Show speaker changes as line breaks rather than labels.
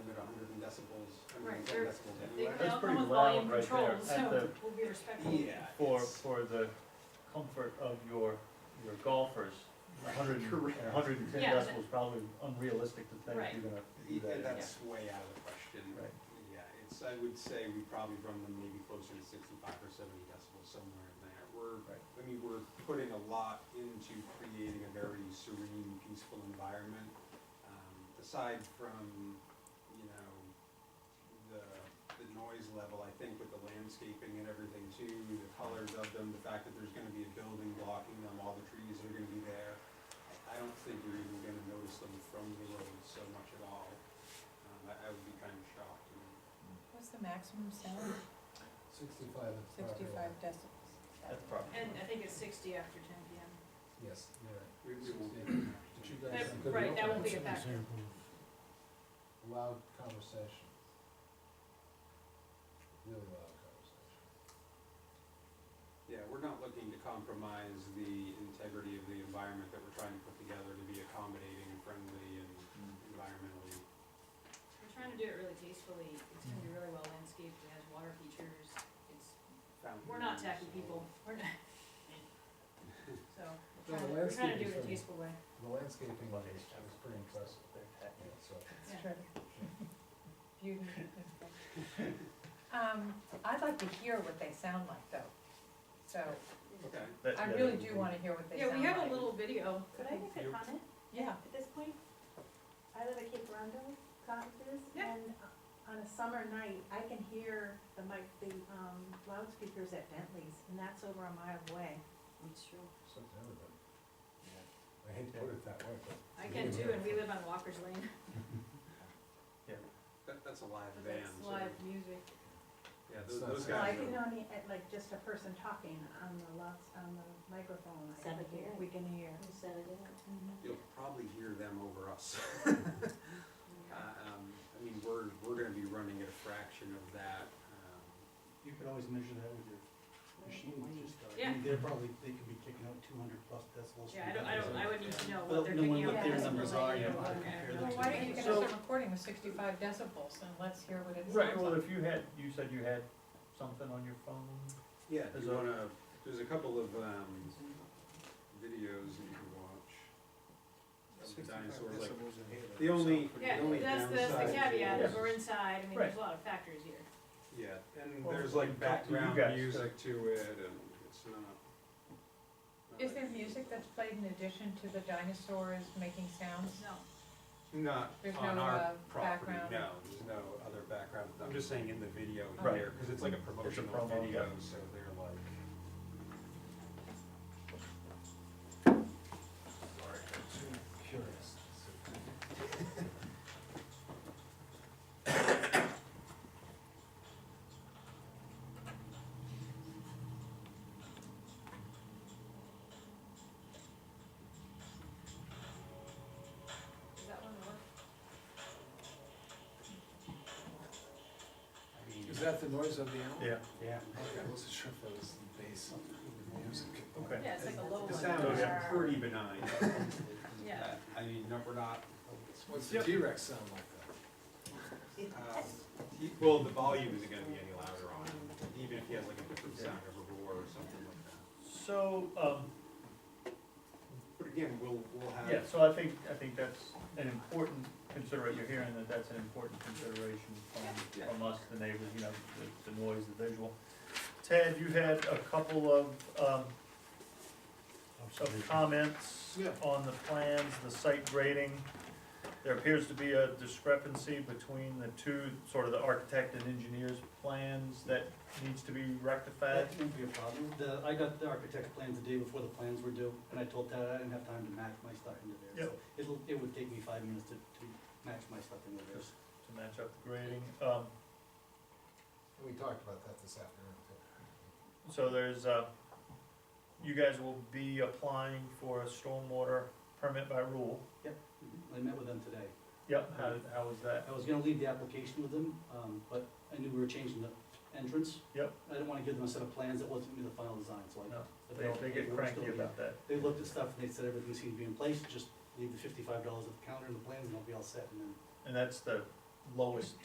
things that that school did.
They
That's
they all
pretty
come with
loud
volume
right
control,
there at
so
the-
we'll be respectful.
Yeah.
for,
it's-
for the comfort of your, your golfers. A hundred and,
Correct.
a hundred and ten
Yeah,
decibels is probably unrealistic to think
Right.
you're gonna do
Yeah,
that.
That's way out of the question.
Right.
Yeah, it's, I would say we probably run them maybe closer to sixty-five or seventy decibels, somewhere in there. We're,
Right.
I mean, we're putting a lot into creating a very serene, peaceful environment. Um, Aside from, you know, the, the noise level, I think with the landscaping and everything too, the colors of them, the fact that there's gonna be a building blocking them, all the trees are gonna be there. I don't think you're even gonna notice them from the road so much at all. Um, I, I would be kind of shocked. I mean,
What's the maximum sound?
Sixty-five is property.
Sixty-ve decibels.
That's probably.
And I think it's sixty after ten PM.
Yes, you're right.
We, we will.
But you
That-
guys could
Right, that won't
open
be a factor.
loud conversation. Really loud conversation.
Yeah, we're not looking to compromise the integrity of the environment that we're trying to put together to be accommodating, friendly, and
Mm.
environmentally.
We're trying to do it really tastefully, it's gonna be really well landscaped, it has water features, it's,
found-
we're not tacky people, we're not. So,
No,
we're
the
trying, we're trying to do it
landscaping
in a
thing.
tasteful way,
The landscaping was, was pretty impressive, yeah, so.
yeah.
Sure. Beauty. Um, I'd like to hear what they sound like though, so,
Okay.
That-
I
yeah,
really
that-
do wanna hear what they sound
Yeah,
like.
we have a little video.
Could I make a
You-
comment
Yeah,
at this point? I live at Cape Redondo, cottages,
Yeah.
and on a summer night, I can hear the mic, the um, loudspeakers at Bentley's, and that's over a mile away.
It's true.
So to everybody. I hate to put it that way, but.
I can too, and we live on Walker's Lane,
That, that's a live
but
band,
that's
so,
live music.
yeah,
It's
those,
not
those
Yeah,
Well, I
guys
can
are,
only, at like, just a person talking on the lots, on the microphone, I
Seven
can hear,
here.
we can hear.
you'll probably hear them over us. Uh, um, I mean, we're, we're gonna be running at a fraction of that, um,
You could always measure that with your machine, just, uh, I
Yeah.
mean, they're probably, they could be kicking out two hundred plus decibels.
Yeah, I
from
don't, I don't, I
that,
would need to know
Well,
what they're
no,
picking
when
up.
what their
as a
numbers are,
relation
you
or
know, how to
whatever.
compare
well,
them
why
to.
don't you get
So-
us a recording with sixty-five decibels and let's hear what it sounds like.
Right, well, if you had, you said you had something on your phone?
Yeah, if
There's
you
a-
wanna, there's a couple of, um, videos that you can watch. Of the dinosaurs, like, the only, the
Yeah,
only
that's,
downside.
that's the caveat,
is-
if we're inside, I mean, there's a lot of factors here.
Yeah, and
Well,
there's
we
like
can talk to you
background
guys,
music to it, and it's not. not
Is
like-
there music that's played in addition to the dinosaurs making sounds?
No,
Not
There's
on
no,
our
uh,
property,
background?
no, there's no other background, I'm just saying in the video
Right.
here, cause it's like a promotional
promo,
video,
yeah.
so they're like. Sorry.
Curious.
is that one work?
I mean,
Is that the noise of the animal?
Yeah.
Yeah.
Okay, I wasn't sure if that was the bass of the music.
Okay.
Yeah, it's like a low one.
The sound is
Yeah.
pretty benign.
Yeah.
I- I mean, no, we're not,
What's the T-Rex sound like that?
um, he- well, the volume isn't gonna be any louder on it, even if he has like a different sound of a roar or something like that.
So, um,
But again, we'll, we'll have.
Yeah, so I think, I think that's an important consideration, you're hearing that that's an important consideration from, from us, the neighbors, you know, the, the noise, the visual. Ted, you had a couple of, um, of comments
Yeah.
on the plans, the site grading. There appears to be a discrepancy between the two, sort of the architect and engineer's plans that needs to be rectified.
That won't be a problem. The, I got the architect's plans the day before the plans were due, and I told Ted I didn't have time to match my stuff into
Yep.
theirs. So It'll, it would take me five minutes to, to match my stuff into theirs.
Just to match up the grading, um,
We talked about that this afternoon too.
So there's, uh, you guys will be applying for a stormwater permit by rule.
I met with them today.
Yep, how, how was that?
I was gonna leave the application with them, um, but I knew we were changing the entrance.
Yep.
I didn't wanna give them a set of plans that wasn't gonna be the final design, so I.
No,
I
They,
put all the
they get
paperwork
cranky
still in.
about that.
They looked at stuff and they said everything seemed to be in place, just leave the fifty-five dollars at the counter and the plans and I'll be all set and then
And that's the lowest